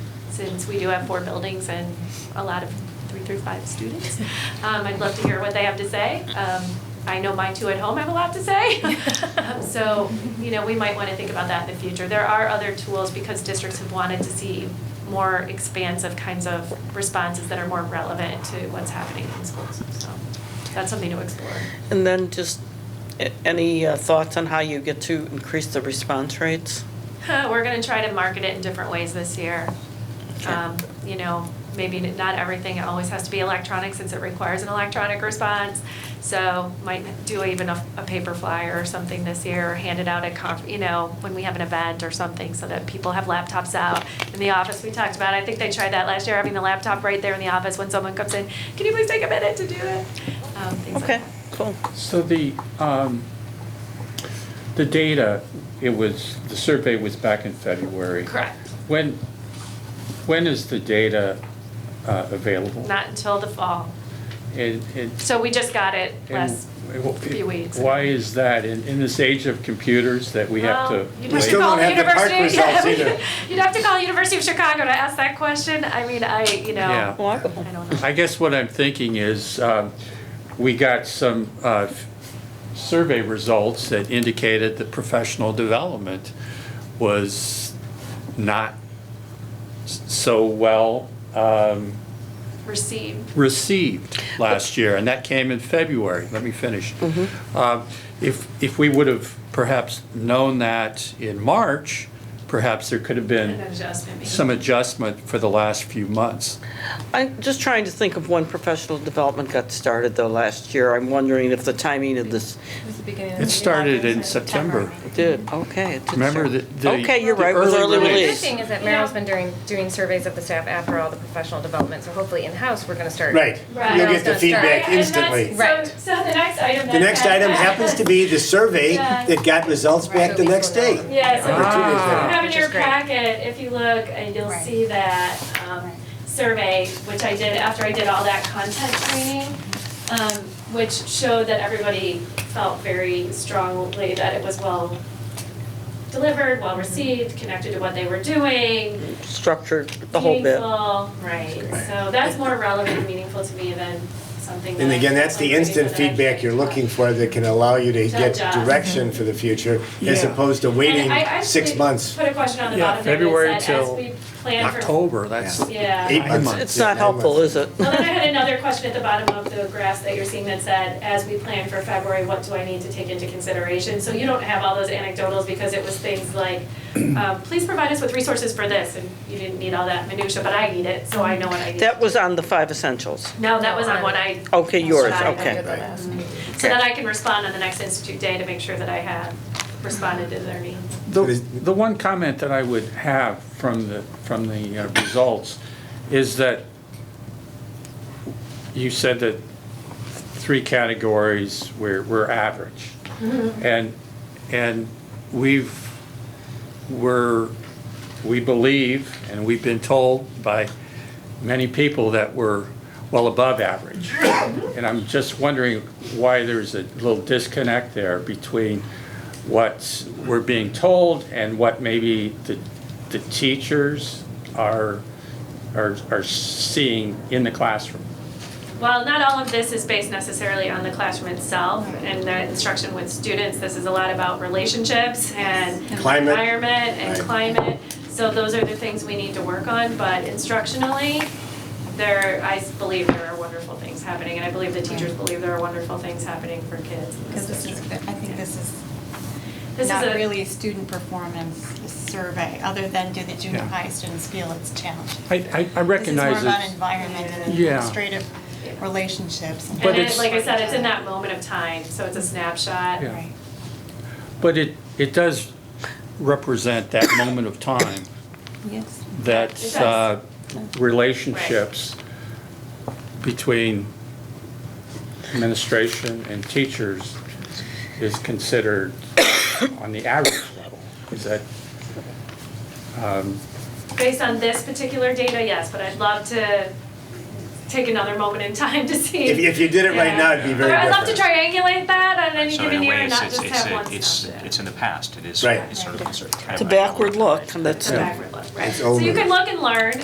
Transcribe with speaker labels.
Speaker 1: since we do have four buildings and a lot of three through five students. Um, I'd love to hear what they have to say. Um, I know my two at home have a lot to say. Um, So, you know, we might want to think about that in the future. There are other tools because districts have wanted to see more expansive kinds of responses that are more relevant to what's happening in schools. So that's something to explore.
Speaker 2: And then just a- any uh, thoughts on how you get to increase the response rates?
Speaker 1: Huh, We're going to try to market it in different ways this year.
Speaker 2: Okay.
Speaker 1: Um, You know, maybe not everything always has to be electronic since it requires an electronic response. So might do even a, a paper flyer or something this year, or hand it out at conf, you know, when we have an event or something so that people have laptops out in the office. We talked about, it. I think they tried that last year, having the laptop right there in the office when someone comes in. Can you please take a minute to do it? Um, Things like
Speaker 2: Okay,
Speaker 1: that.
Speaker 2: cool.
Speaker 3: So the, um, the data, it was, the survey was back in February.
Speaker 1: Correct.
Speaker 3: When, when is the data uh, available?
Speaker 1: Not until the fall.
Speaker 3: And- and-
Speaker 1: So we just got it last
Speaker 3: and wh-
Speaker 1: few weeks.
Speaker 3: Why is that, in, in this age of computers, that we have
Speaker 1: Well,
Speaker 3: to?
Speaker 1: You'd
Speaker 4: We
Speaker 1: have
Speaker 3: wait?
Speaker 1: to
Speaker 4: still
Speaker 1: call
Speaker 4: don't
Speaker 1: the
Speaker 4: have the park
Speaker 1: university. yeah,
Speaker 4: results
Speaker 1: we-
Speaker 4: either.
Speaker 1: You'd have to call University of Chicago to ask that question. I mean, I, you
Speaker 3: Yeah.
Speaker 1: know, I
Speaker 2: Walkable.
Speaker 1: don't know.
Speaker 3: I guess what I'm thinking is, um, we got some uh, survey results that indicated that professional development was not s- so well um,
Speaker 1: Received.
Speaker 3: received last year, and that came in February. Let me finish. Uh, If, if we would have perhaps known that in March, perhaps there could have
Speaker 1: An
Speaker 3: been
Speaker 1: adjustment. maybe.
Speaker 3: some adjustment for the last few months.
Speaker 2: I'm just trying to think of when professional development got started though last year. I'm wondering if the timing of this
Speaker 5: It was the beginning of
Speaker 3: It
Speaker 5: the year.
Speaker 3: started in
Speaker 5: Yeah.
Speaker 3: September.
Speaker 2: did, okay. it did
Speaker 3: Remember
Speaker 2: start.
Speaker 3: the- the-
Speaker 2: Okay, you're
Speaker 3: the
Speaker 2: right, it was
Speaker 3: early
Speaker 2: early
Speaker 5: The good
Speaker 3: release.
Speaker 2: release.
Speaker 5: thing is that Merrill's been doing, doing surveys of the staff after all the professional development, so hopefully in-house, we're gonna start.
Speaker 4: Right.
Speaker 1: Right.
Speaker 4: You'll get the
Speaker 5: Right.
Speaker 4: feedback
Speaker 1: And that's-
Speaker 4: instantly.
Speaker 5: Right.
Speaker 1: So, so the next item.
Speaker 4: The next item happens to be the survey
Speaker 1: Yeah.
Speaker 4: that got results back the next day.
Speaker 1: Yeah, so
Speaker 4: Or two days
Speaker 1: you
Speaker 4: later.
Speaker 1: have in
Speaker 5: Which
Speaker 1: your
Speaker 5: is great.
Speaker 1: packet, if you look, and you'll
Speaker 6: Right.
Speaker 1: see that um, survey, which I did after I did all that content training, um, which showed that everybody felt very strongly that it was well delivered, well received, connected to what they were doing,
Speaker 2: Structured, the whole bit.
Speaker 1: meaningful, right? So that's more relevant and meaningful to me than something that.
Speaker 4: And again, that's the instant feedback you're looking for that can allow you to get
Speaker 1: Good job.
Speaker 4: direction for the future as
Speaker 3: Yeah.
Speaker 4: opposed to waiting
Speaker 1: And I actually
Speaker 4: six months.
Speaker 1: Put a question on the
Speaker 3: Yeah,
Speaker 1: bottom there
Speaker 3: February
Speaker 1: that said, as
Speaker 3: till
Speaker 1: we plan for.
Speaker 3: October, that's,
Speaker 1: Yeah.
Speaker 4: Eight
Speaker 3: Nine
Speaker 4: months.
Speaker 3: months.
Speaker 2: It's
Speaker 4: Yeah,
Speaker 2: not
Speaker 4: nine
Speaker 2: helpful,
Speaker 4: months.
Speaker 2: is it?
Speaker 1: Well, then I had another question at the bottom of the graph that you're seeing that E said, as we plan for February, what do I need to take into consideration? So you don't have all those anecdotals because it was things like, um, please provide us with resources for this, and you didn't need all that minutia, but I need it, so I know what I need.
Speaker 2: That was on the five essentials.
Speaker 1: No, that was on what I,
Speaker 2: Okay, yours,
Speaker 1: Sorry, I
Speaker 2: okay.
Speaker 5: Under the last meeting.
Speaker 1: so that I can respond on the next institute day to make sure that I had responded to their needs.
Speaker 3: The,
Speaker 4: It is-
Speaker 3: the one comment that I would have from the, from the uh, results is that you said that three categories were, were average. And, and we've, we're, we believe, and we've been told by many people that we're well above average. And I'm just wondering why there's a little disconnect there between what we're being told and what maybe the, the teachers are, are, are seeing in the classroom.
Speaker 1: Well, not all of this is based necessarily on the classroom itself and the instruction with students. This is a lot about relationships and
Speaker 4: Climate.
Speaker 1: environment and
Speaker 4: Right.
Speaker 1: climate. So those are the things we need to work on, but instructionally, there, I believe there are wonderful things happening, and I believe the teachers believe there are wonderful things happening for kids in
Speaker 6: Because
Speaker 1: this
Speaker 6: this is,
Speaker 1: district.
Speaker 6: I think this is
Speaker 1: This is
Speaker 6: not
Speaker 1: a-
Speaker 6: really a student performance survey, other than do the junior
Speaker 3: Yeah.
Speaker 6: high students feel it's challenging?
Speaker 3: I, I, I
Speaker 6: This
Speaker 3: recognize
Speaker 6: is more about
Speaker 3: it.
Speaker 6: environment and
Speaker 3: Yeah.
Speaker 6: administrative relationships. and-
Speaker 3: But
Speaker 1: And it,
Speaker 3: it's-
Speaker 1: like I said, it's in that moment of time, so it's a snapshot.
Speaker 3: Yeah.
Speaker 6: Right.
Speaker 3: But it, it does represent that moment of time,
Speaker 6: Yes.
Speaker 3: that
Speaker 1: does.
Speaker 3: uh, relationships between administration and teachers is considered on the average level. Is that,
Speaker 1: Based on this particular data, yes, but I'd love to take another moment in time to see.
Speaker 4: If, if you did it right now, it'd be very
Speaker 1: Or I'd
Speaker 4: different.
Speaker 1: love to triangulate that on any
Speaker 7: So in
Speaker 1: given
Speaker 7: a
Speaker 1: year
Speaker 7: way,
Speaker 1: and
Speaker 7: it's,
Speaker 1: not
Speaker 7: it's,
Speaker 1: just
Speaker 7: it's,
Speaker 1: have
Speaker 7: a-
Speaker 1: one
Speaker 7: it's,
Speaker 1: snapshot.
Speaker 7: it's in the past, it is,
Speaker 4: Right.
Speaker 7: it's sort of, it's sort of.
Speaker 2: It's a backward look, and that's,
Speaker 1: It's a backward look, right?
Speaker 4: It's
Speaker 1: So you
Speaker 4: over.
Speaker 1: can look and learn,